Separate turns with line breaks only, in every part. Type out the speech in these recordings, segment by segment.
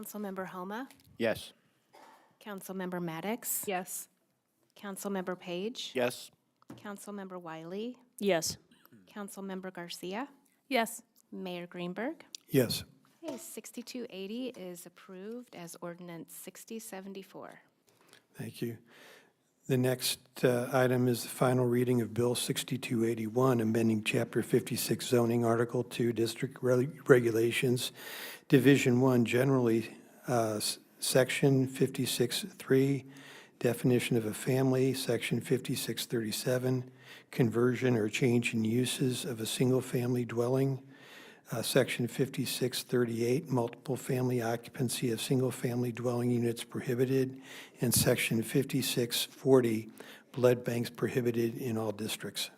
Councilmember Homa,
Yes.
Councilmember Maddox,
Yes.
Councilmember Page,
Yes.
Councilmember Wiley,
Yes.
Councilmember Garcia,
Yes.
Mayor Greenberg.
Yes.
Okay, 6280 is approved as ordinance 6074.
Thank you. The next uh, item is the final reading of Bill 6281, amending Chapter 56 zoning, Article 2, District Reg- Regulations, Division 1, generally, uh, s- Section 56-3, definition of a family, Section 5637, conversion or change in uses of a single-family dwelling, uh, Section 5638, multiple family occupancy of single-family dwelling units prohibited, and Section 5640, blood banks prohibited in all districts.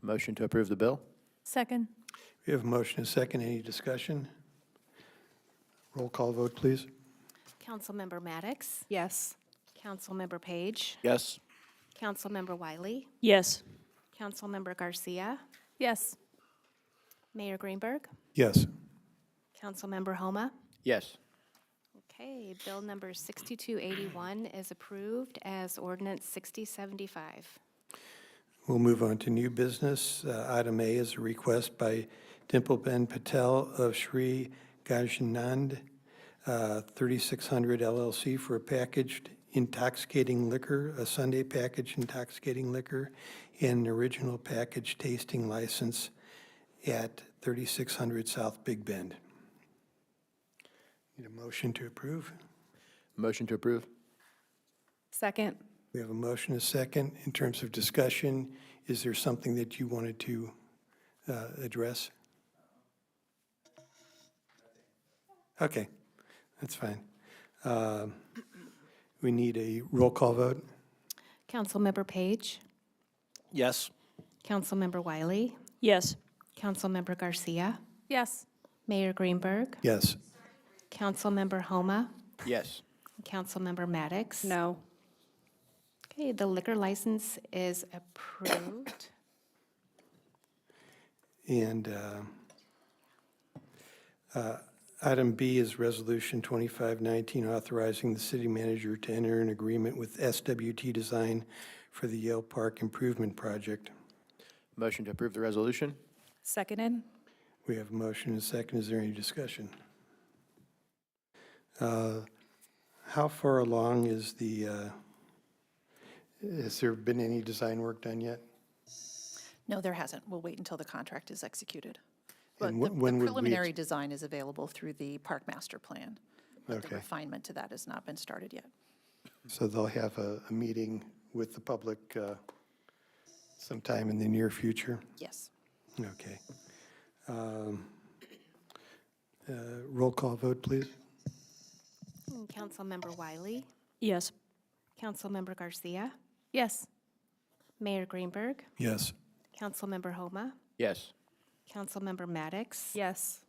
Motion to approve the bill?
Second.
We have a motion and a second. Any discussion? Roll call vote, please.
Councilmember Maddox,
Yes.
Councilmember Page,
Yes.
Councilmember Wiley,
Yes.
Councilmember Garcia,
Yes.
Mayor Greenberg,
Yes.
Councilmember Homa.
Yes.
Okay, bill number 6281 is approved as ordinance 6075.
We'll move on to new business. Uh, Item A is a request by Dimple Ben Patel of Sri Gajanand, uh, 3600 LLC for a packaged intoxicating liquor, a Sunday package intoxicating liquor, and an original package tasting license at 3600 South Big Bend. Need a motion to approve?
Motion to approve?
Second.
We have a motion, a second. In terms of discussion, is there something that you wanted to uh, address? Okay, that's fine. Um, We need a roll call vote?
Councilmember Page,
Yes.
Councilmember Wiley,
Yes.
Councilmember Garcia,
Yes.
Mayor Greenberg,
Yes.
Councilmember Homa,
Yes.
Councilmember Maddox.
No.
Okay, the liquor license is approved.
And uh, uh, item B is Resolution 2519, authorizing the city manager to enter an agreement with SWT Design for the Yale Park Improvement Project.
Motion to approve the resolution?
Seconded.
We have a motion and a second. Is there any discussion? Uh, How far along is the, uh, has there been any design work done yet?
No, there hasn't. We'll wait until the contract is executed. But
And
the
wh-
the
when would we ex-
preliminary design is available through the park master plan. but The
Okay.
refinement to that has not been started yet.
So they'll have a, a meeting with the public uh, sometime in the near future?
Yes.
Okay. Um, uh, Roll call vote, please.
Councilmember Wiley,
Yes.
Councilmember Garcia,
Yes.
Mayor Greenberg,
Yes.
Councilmember Homa,
Yes.
Councilmember Maddox,
Yes.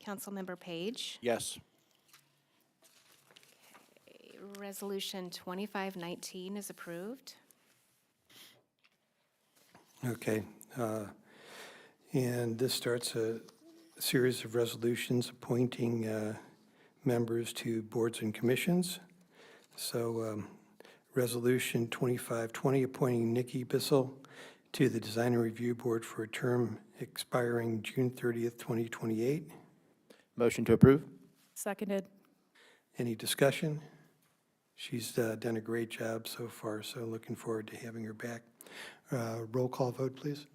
Councilmember Page.
Yes.
Resolution 2519 is approved.
Okay. uh, And this starts a series of resolutions appointing uh, members to boards and commissions. So um, Resolution 2520, appointing Nikki Bissell to the Design and Review Board for a term expiring June 30th, 2028.
Motion to approve?
Seconded.
Any discussion? She's uh, done a great job so far, so looking forward to having her back. Uh, Roll call vote, please.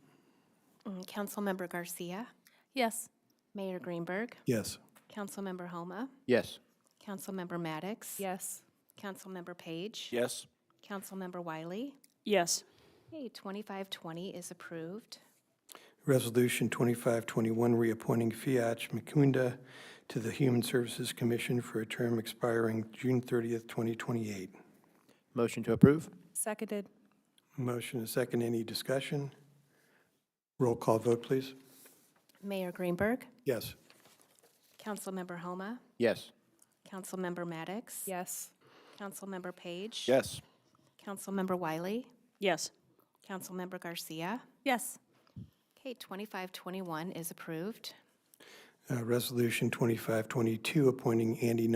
Mm, Councilmember Garcia,
Yes.
Mayor Greenberg,
Yes.
Councilmember Homa,
Yes.
Councilmember Maddox.
Yes.
Councilmember Page.
Yes.
Councilmember Wiley.
Yes.
Okay, 2520 is approved.
Resolution 2521, reappointing Fiatch Mukunda to the Human Services Commission for a term expiring June 30th, 2028.
Motion to approve?
Seconded.
Motion and second, any discussion? Roll call vote, please.
Mayor Greenberg,
Yes.
Councilmember Homa,
Yes.
Councilmember Maddox.
Yes.
Councilmember Page.
Yes.
Councilmember Wiley,
Yes.
Councilmember Garcia.
Yes.
Okay, 2521 is approved.
uh, Resolution 2522, appointing Andy